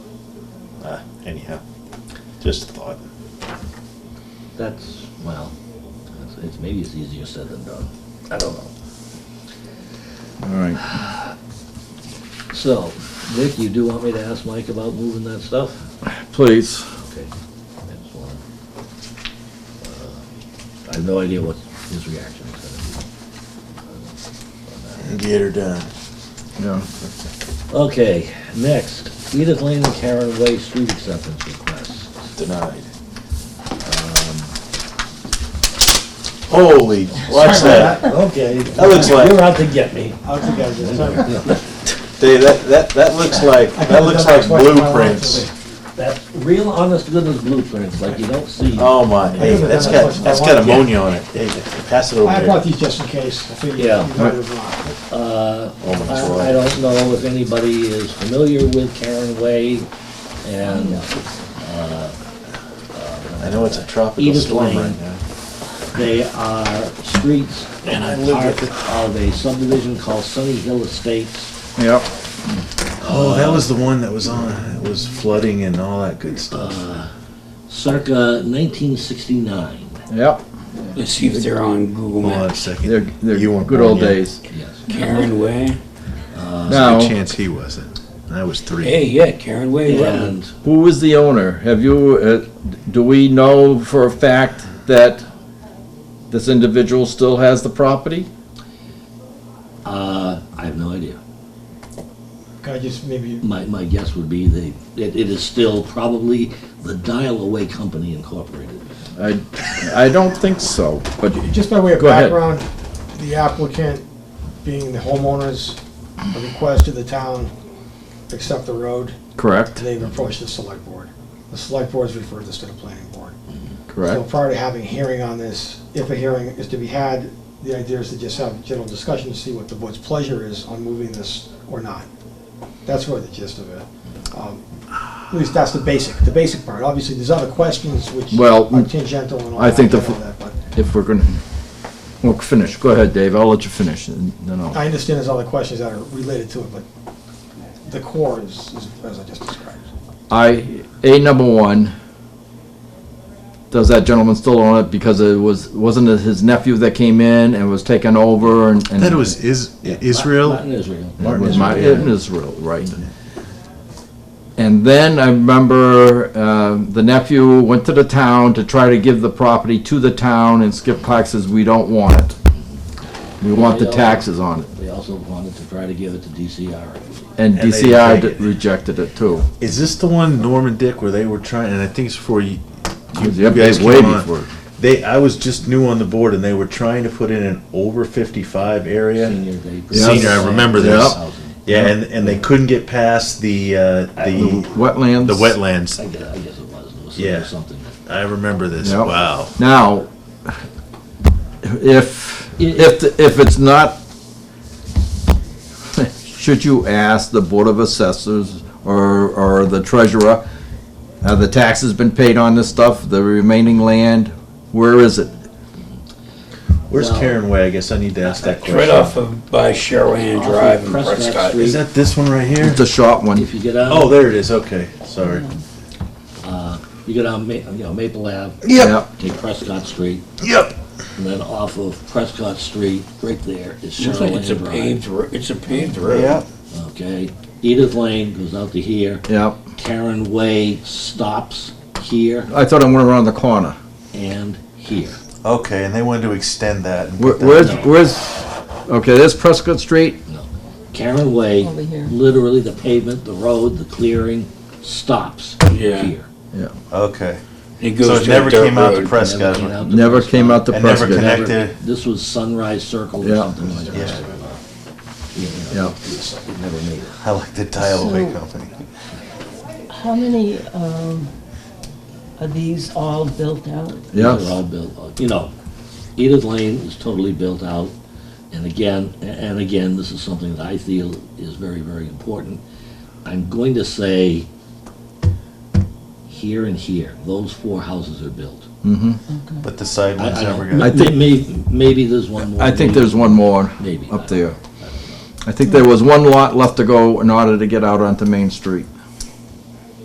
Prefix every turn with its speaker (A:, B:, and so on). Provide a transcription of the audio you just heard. A: Uh, anyhow, just a thought.
B: That's, well, it's, it's, maybe it's easier said than done. I don't know.
C: All right.
B: So, Vic, you do want me to ask Mike about moving that stuff?
C: Please.
B: Okay. I just wanna- uh, I have no idea what his reaction is gonna
A: Get her done.
C: Yeah.
B: be. Uh, Okay, next, Edith Lane and Karen Way street acceptance requests.
A: Denied. Um, Holy, watch that.
D: Okay.
A: That looks like-
D: You're out to get me. Out to get you. Sorry.
A: Dave, that, that, that looks like, that looks like blueprints.
B: That's real honest to goodness blueprints, like you don't see.
A: Oh my, hey, that's got, that's got ammonia on it. Hey, pass it over
D: I brought
A: there.
D: these just in case. I figured
B: Yeah.
D: you might have not.
B: Uh,
A: Oh, my
B: I I
A: God.
B: don't know if anybody is familiar with Karen Way and
A: I know it's a tropical
B: Edith
A: storm
B: Lane.
A: right now.
B: They are streets and
A: I
B: a
A: lived
B: part
A: with
B: of a subdivision called Sunny Hill Estates.
C: Yep.
A: Oh, that was the one that was on, it was flooding and all that good stuff.
B: Circa 1969,
C: Yep.
E: Let's see if they're on Google
A: Hold on a
E: Maps.
C: They're,
A: second.
C: they're
A: You weren't
C: good old
A: born yet.
C: days.
B: yes.
E: Karen Way.
A: Uh,
C: Now,
A: There's a chance he wasn't. I was three.
E: Hey, yeah, Karen Way. Road.
B: And
C: who is the owner? Have you, uh, do we know for a fact that this individual still has the property?
B: uh, I have no idea.
D: Can I just maybe,
B: My, my guess would be they, it it is still probably the Dial Away Company Incorporated.
C: I, I don't think so, but
D: just by way of
C: Go ahead.
D: background, the applicant, being the homeowners, requested the town accept the road.
C: correct,
D: They've approached the select board. The select board has referred this to the planning board. So
C: correct.
D: prior to having a hearing on this, if a hearing is to be had, the idea is to just have a general discussion to see what the board's pleasure is on moving this or not. That's really the gist of it.
C: Hmm.
D: Um, At least that's the basic, the basic part. Obviously, there's other questions which
C: Well,
D: are tangential and all
C: I
D: that,
C: think
D: I
C: the
D: get all
C: f-
D: that, but
C: If we're gonna, well, finish, go ahead, Dave, I'll let you finish, and then I'll,
D: I understand there's other questions that are related to it, but the core is, is as I just described.
C: I, A number one, does that gentleman still own it, because it was, wasn't it his nephew that came in and was taken over and? and-
A: That was Is,
B: Not in
A: Israel.
B: Israel.
C: It
A: Martin
C: was my,
A: Israel.
C: in Israel, right. And then I remember um, the nephew went to the town to try to give the property to the town, and Skip Clark says, "We don't want it. We want the taxes on it."
B: They also wanted to try to give it to DCR.
A: And
C: And
A: they
C: DCI
A: rejected it.
C: rejected it too.
A: Is this the one Norm and Dick where they were trying, and I think it's before you, you
C: Yep,
A: you guys
C: it was way
A: came on.
C: before.
A: They, I was just new on the board and they were trying to put in an over fifty-five area.
B: Senior, they.
A: Senior, I remember this.
B: Housing.
A: Yeah, and, and they couldn't get past the, uh, the,
C: Wetlands.
A: the wetlands.
B: I guess, I guess it was, it was
A: Yeah.
B: something.
A: I remember this,
C: Yep.
A: wow.
C: Now, if, if, if it's not, should you ask the Board of Assessors or, or the treasurer, have the taxes been paid on this stuff, the remaining land, where is it?
A: Where's
B: Well-
A: Karen Way? I guess I need to ask that
E: It's right
A: question.
E: off of by Sherwan
B: Off of
E: Drive and
B: Prescott
E: Prescott.
B: Street.
A: Is that this one right here?
C: It's a short one,
B: If you get out.
A: Oh, there it is, okay, sorry.
B: You go down, Ma- you know, Maple Ave.
C: Yep.
B: Take Prescott Street,
A: Yep.
B: and then off of Prescott Street, right there is
E: Looks like it's a
B: Sherland
E: paved,
B: Drive.
E: ro- it's a paved road.
A: Yep.
B: Okay, Edith Lane goes out to here,
C: yeah.
B: Karen Way stops here
C: I thought I went around the corner.
B: and here.
A: Okay, and they wanted to extend that. and
C: Where-
A: put that-
C: Where's, where's, okay, there's Prescott Street,
B: Karen Way,
F: Over here.
B: literally the pavement, the road, the clearing, stops
E: Yeah.
B: here.
A: Okay.
E: It
A: So
E: goes
A: it
E: to
A: never
E: a dirt
A: came out to
E: road.
A: Prescott.
B: came out to
C: never
B: Prescott.
C: came out to
A: And never
C: Prescott.
B: Never-
A: Connected.
B: This was Sunrise Circle or
C: Yeah.
B: something like
A: Yeah.
B: that. Yeah, you know,
C: Yeah.
B: It never made it.
A: I like the tile away
F: So-
A: company.
F: How many um, are these all built out?
B: These
C: Yes.
B: are all built, out. you know, Edith Lane is totally built out. And again, and again, this is something that I feel is very, very important. I'm going to say here and here, those four houses are built.
C: Mm-hmm.
A: But the side
B: I-
A: one's
B: I
A: never
B: don't-
A: gonna.
C: I think-
B: may- Maybe there's one more.
C: I think there's one more
B: Maybe.
C: up there. I think there was one lot left to go in order to get out onto Main Street.